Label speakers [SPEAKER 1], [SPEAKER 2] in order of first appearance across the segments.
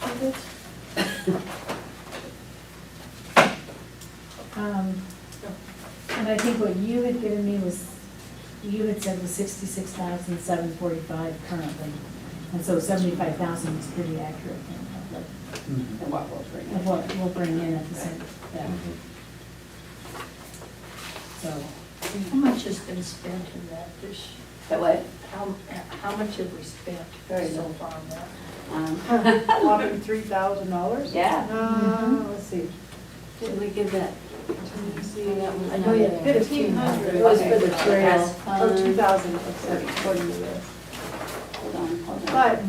[SPEAKER 1] budgets. Um, And I think what you had given me was, you had said was sixty-six thousand seven forty-five currently. And so seventy-five thousand is pretty accurate in of
[SPEAKER 2] And what will bring
[SPEAKER 1] the- of
[SPEAKER 2] it?
[SPEAKER 1] what we'll bring in at the same, yeah. So,
[SPEAKER 3] How much has been spent in that this,
[SPEAKER 2] That what?
[SPEAKER 3] how, how much have we spent
[SPEAKER 2] Very
[SPEAKER 3] so
[SPEAKER 2] little.
[SPEAKER 3] far on that?
[SPEAKER 2] Um,
[SPEAKER 4] Whopping three thousand dollars?
[SPEAKER 2] Yeah.
[SPEAKER 4] Uh, let's see.
[SPEAKER 5] Did we give that?
[SPEAKER 4] Let me see.
[SPEAKER 5] I
[SPEAKER 4] know you had
[SPEAKER 5] Fifteen
[SPEAKER 4] 1,500.
[SPEAKER 5] hundred.
[SPEAKER 4] It was for the
[SPEAKER 2] trail.
[SPEAKER 4] Or two thousand, except according to this.
[SPEAKER 2] Hold on, hold on.
[SPEAKER 4] But.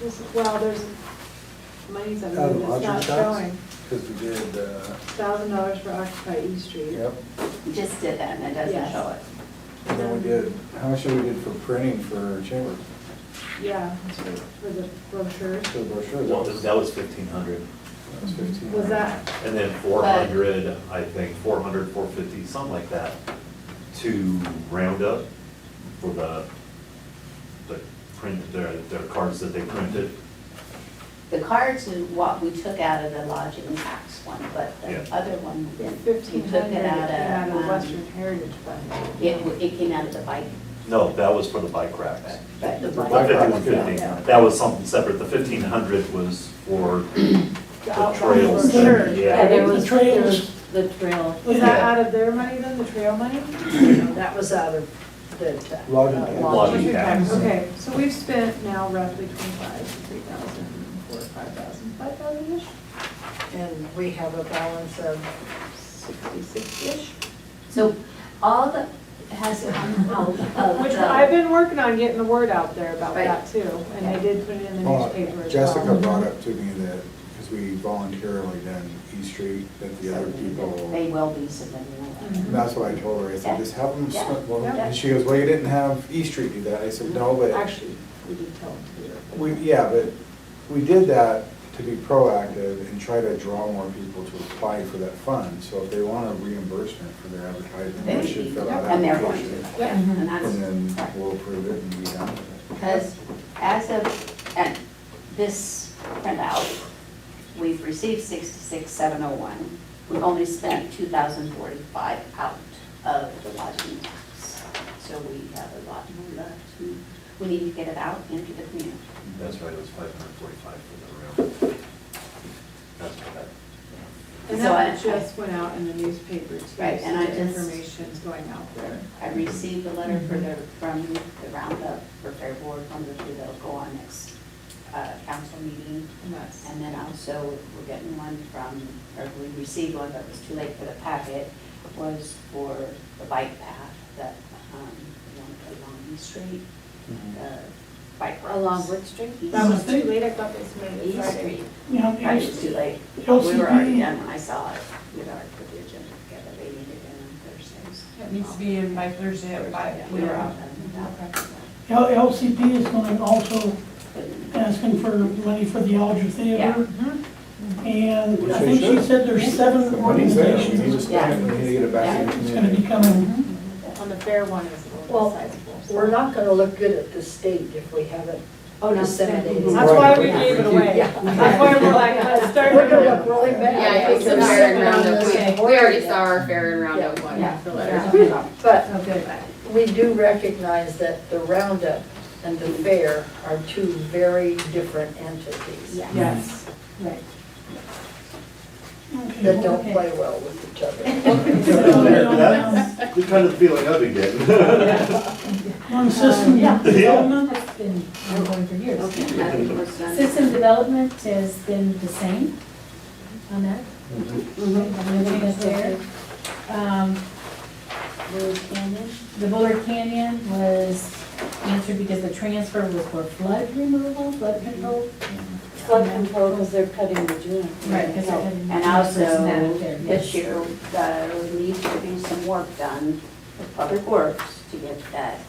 [SPEAKER 4] This, is- well, there's money's under
[SPEAKER 6] Oh,
[SPEAKER 7] Out of
[SPEAKER 4] that's not
[SPEAKER 7] lodging tax?
[SPEAKER 4] showing.
[SPEAKER 7] Because we did, uh,
[SPEAKER 4] Thousand dollars for Occupy E Street.
[SPEAKER 7] yep,
[SPEAKER 2] We just did that and it doesn't
[SPEAKER 4] Yes.
[SPEAKER 2] show it.
[SPEAKER 7] and then we did, how much did we did for printing for chamber,
[SPEAKER 4] Yeah, for the brochure.
[SPEAKER 7] for the brochure?
[SPEAKER 6] Well, that was fifteen hundred,
[SPEAKER 7] That was fifteen.
[SPEAKER 4] Was that,
[SPEAKER 6] and then four hundred, I think, four hundred, four fifty, something like that, to round up for the, the print, their, their cards that they printed.
[SPEAKER 2] The cards is what we took out of the lodging tax one, but the
[SPEAKER 6] Yeah.
[SPEAKER 2] other one, we didn't. We
[SPEAKER 4] fifteen
[SPEAKER 2] took
[SPEAKER 4] hundred,
[SPEAKER 2] it out
[SPEAKER 4] out
[SPEAKER 2] of,
[SPEAKER 4] of
[SPEAKER 2] um,
[SPEAKER 4] Western Heritage Fund.
[SPEAKER 2] It, w- it came out of the bike,
[SPEAKER 6] No, that was for the bike racks.
[SPEAKER 2] but the
[SPEAKER 7] The
[SPEAKER 2] bike.
[SPEAKER 7] bike rack.
[SPEAKER 6] fifty-one fifty, that was something separate, the fifteen hundred was for the
[SPEAKER 4] outbound
[SPEAKER 6] trails.
[SPEAKER 4] brochure.
[SPEAKER 6] Yeah.
[SPEAKER 5] there was, there was the trail.
[SPEAKER 4] Was that out of their money then, the trail money?
[SPEAKER 3] No, That was out of the tax.
[SPEAKER 7] Lodging
[SPEAKER 3] uh,
[SPEAKER 7] tax.
[SPEAKER 6] Lodging tax.
[SPEAKER 4] Okay, so we've spent now roughly twenty-five, three thousand, four, five thousand, five thousand-ish,
[SPEAKER 3] And we have a balance of,
[SPEAKER 4] sixty-six-ish.
[SPEAKER 2] So all that has come out of.
[SPEAKER 4] Which
[SPEAKER 2] the-
[SPEAKER 4] I've been working on getting the word out there about
[SPEAKER 2] Right.
[SPEAKER 4] that too, and I did put it in the
[SPEAKER 7] Well,
[SPEAKER 4] newspaper as well.
[SPEAKER 7] Oh, Jessica brought up to me that, because we voluntarily done E Street, that the other
[SPEAKER 2] They
[SPEAKER 7] people,
[SPEAKER 2] will be submitting a letter.
[SPEAKER 4] Mhm.
[SPEAKER 7] that's what I told her, I said, just help them,
[SPEAKER 2] Yeah.
[SPEAKER 7] split- well,
[SPEAKER 4] Yeah.
[SPEAKER 7] and she goes, well, you didn't have E Street do that, I said, no, but,
[SPEAKER 4] Actually, we did tell them to do it.
[SPEAKER 7] we, yeah, but we did that to be proactive and try to draw more people to apply for that fund, so if they want a reimbursement for their advertising,
[SPEAKER 2] They
[SPEAKER 7] they should fill out
[SPEAKER 2] And they're going
[SPEAKER 7] application.
[SPEAKER 2] to, yeah, and
[SPEAKER 7] And then
[SPEAKER 2] that's.
[SPEAKER 7] we'll approve it and be done with it.
[SPEAKER 2] Because as of, and this printout, we've received sixty-six, seven oh one. We've only spent two thousand forty-five out of the lodging tax. So we have a lot more left. to- We need to get it out into the community.
[SPEAKER 6] That's right, it was five hundred forty-five for the round. That's what that.
[SPEAKER 4] And
[SPEAKER 2] So I-
[SPEAKER 4] that just went out in the newspaper too, so
[SPEAKER 2] Right, and I
[SPEAKER 4] the
[SPEAKER 2] just-
[SPEAKER 4] information's going out there.
[SPEAKER 2] I received a letter for the, from the roundup for Fair Board, from the, that'll go on next uh, council meeting.
[SPEAKER 4] And that's,
[SPEAKER 2] And then also, we're getting one from, or we received one, but it was too late for the packet, was for the bike path that, um, along- along East Street, uh, bike roads.
[SPEAKER 5] Along Wood Street?
[SPEAKER 4] that was too late, I thought they submitted it
[SPEAKER 2] East
[SPEAKER 4] Friday.
[SPEAKER 2] Street.
[SPEAKER 8] Yeah,
[SPEAKER 2] Right,
[SPEAKER 8] the
[SPEAKER 2] it's too late. We
[SPEAKER 8] LCD.
[SPEAKER 2] were already done when I saw it with our, with the agenda together. They needed it on Thursdays.
[SPEAKER 9] It needs to be in by Thursday at five.
[SPEAKER 2] We were all done.
[SPEAKER 8] L- LCP is going to also asking for money for the Alger Theater.
[SPEAKER 4] Mm-hmm.
[SPEAKER 8] And I think she said there's seven
[SPEAKER 7] The money's there, we need to
[SPEAKER 8] organizations.
[SPEAKER 7] spend it, we need to get it back in the
[SPEAKER 8] It's going to
[SPEAKER 7] community.
[SPEAKER 8] be coming.
[SPEAKER 4] On the fair one is a little
[SPEAKER 3] Well,
[SPEAKER 4] sizable. so-
[SPEAKER 3] we're not gonna look good at the state if we haven't
[SPEAKER 2] Oh, no.
[SPEAKER 3] disseminated.
[SPEAKER 4] That's why we gave it away.
[SPEAKER 3] Yeah.
[SPEAKER 4] That's why we're like, let's start.
[SPEAKER 3] We're gonna look really bad.
[SPEAKER 10] Yeah, I think
[SPEAKER 3] We're
[SPEAKER 10] the
[SPEAKER 3] not
[SPEAKER 10] fair and
[SPEAKER 3] sitting on
[SPEAKER 10] roundup,
[SPEAKER 3] this
[SPEAKER 10] we, we already saw our fair and roundup one,
[SPEAKER 2] Yeah.
[SPEAKER 10] the letters.
[SPEAKER 3] But
[SPEAKER 1] so oh, good.
[SPEAKER 3] we do recognize that the roundup and the fair are two very different entities
[SPEAKER 2] Yeah.
[SPEAKER 4] Yes.
[SPEAKER 1] Right.
[SPEAKER 4] Mm-hmm.
[SPEAKER 3] that don't play well with each other.
[SPEAKER 1] um,
[SPEAKER 8] One
[SPEAKER 6] The kind of feeling I've been getting.
[SPEAKER 8] system
[SPEAKER 1] um, Yeah.
[SPEAKER 8] development.
[SPEAKER 1] It's been ongoing for years.
[SPEAKER 2] Okay, nothing was done.
[SPEAKER 1] System development has been the same on that. I'm looking at there. Um,
[SPEAKER 2] Blue Canyon?
[SPEAKER 1] The Bullard Canyon was answered because the transfer was for flood removal, flood control.
[SPEAKER 5] Flood control, because they're cutting the dune.
[SPEAKER 1] Because I didn't-
[SPEAKER 2] And also,
[SPEAKER 1] Yes.
[SPEAKER 2] this year, uh, we need to be some work done with Public Works to get that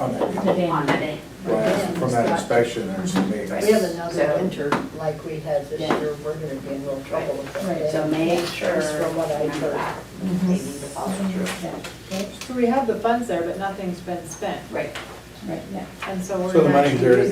[SPEAKER 7] On that.
[SPEAKER 1] The dam.
[SPEAKER 2] on the dam.
[SPEAKER 7] Right, From that inspection, there's some
[SPEAKER 3] If
[SPEAKER 7] maintenance.
[SPEAKER 3] We have another
[SPEAKER 2] So-
[SPEAKER 3] winter like we had this
[SPEAKER 2] Yeah.
[SPEAKER 3] year, we're gonna be in real trouble with that.
[SPEAKER 1] Right,
[SPEAKER 2] So make sure.
[SPEAKER 3] From what I heard. Mm-hmm.
[SPEAKER 2] They need to follow through.
[SPEAKER 4] So we have the funds there, but nothing's been spent,
[SPEAKER 2] Right.
[SPEAKER 1] Right, yeah.
[SPEAKER 4] and so we're.
[SPEAKER 7] So the
[SPEAKER 4] not
[SPEAKER 7] money's there to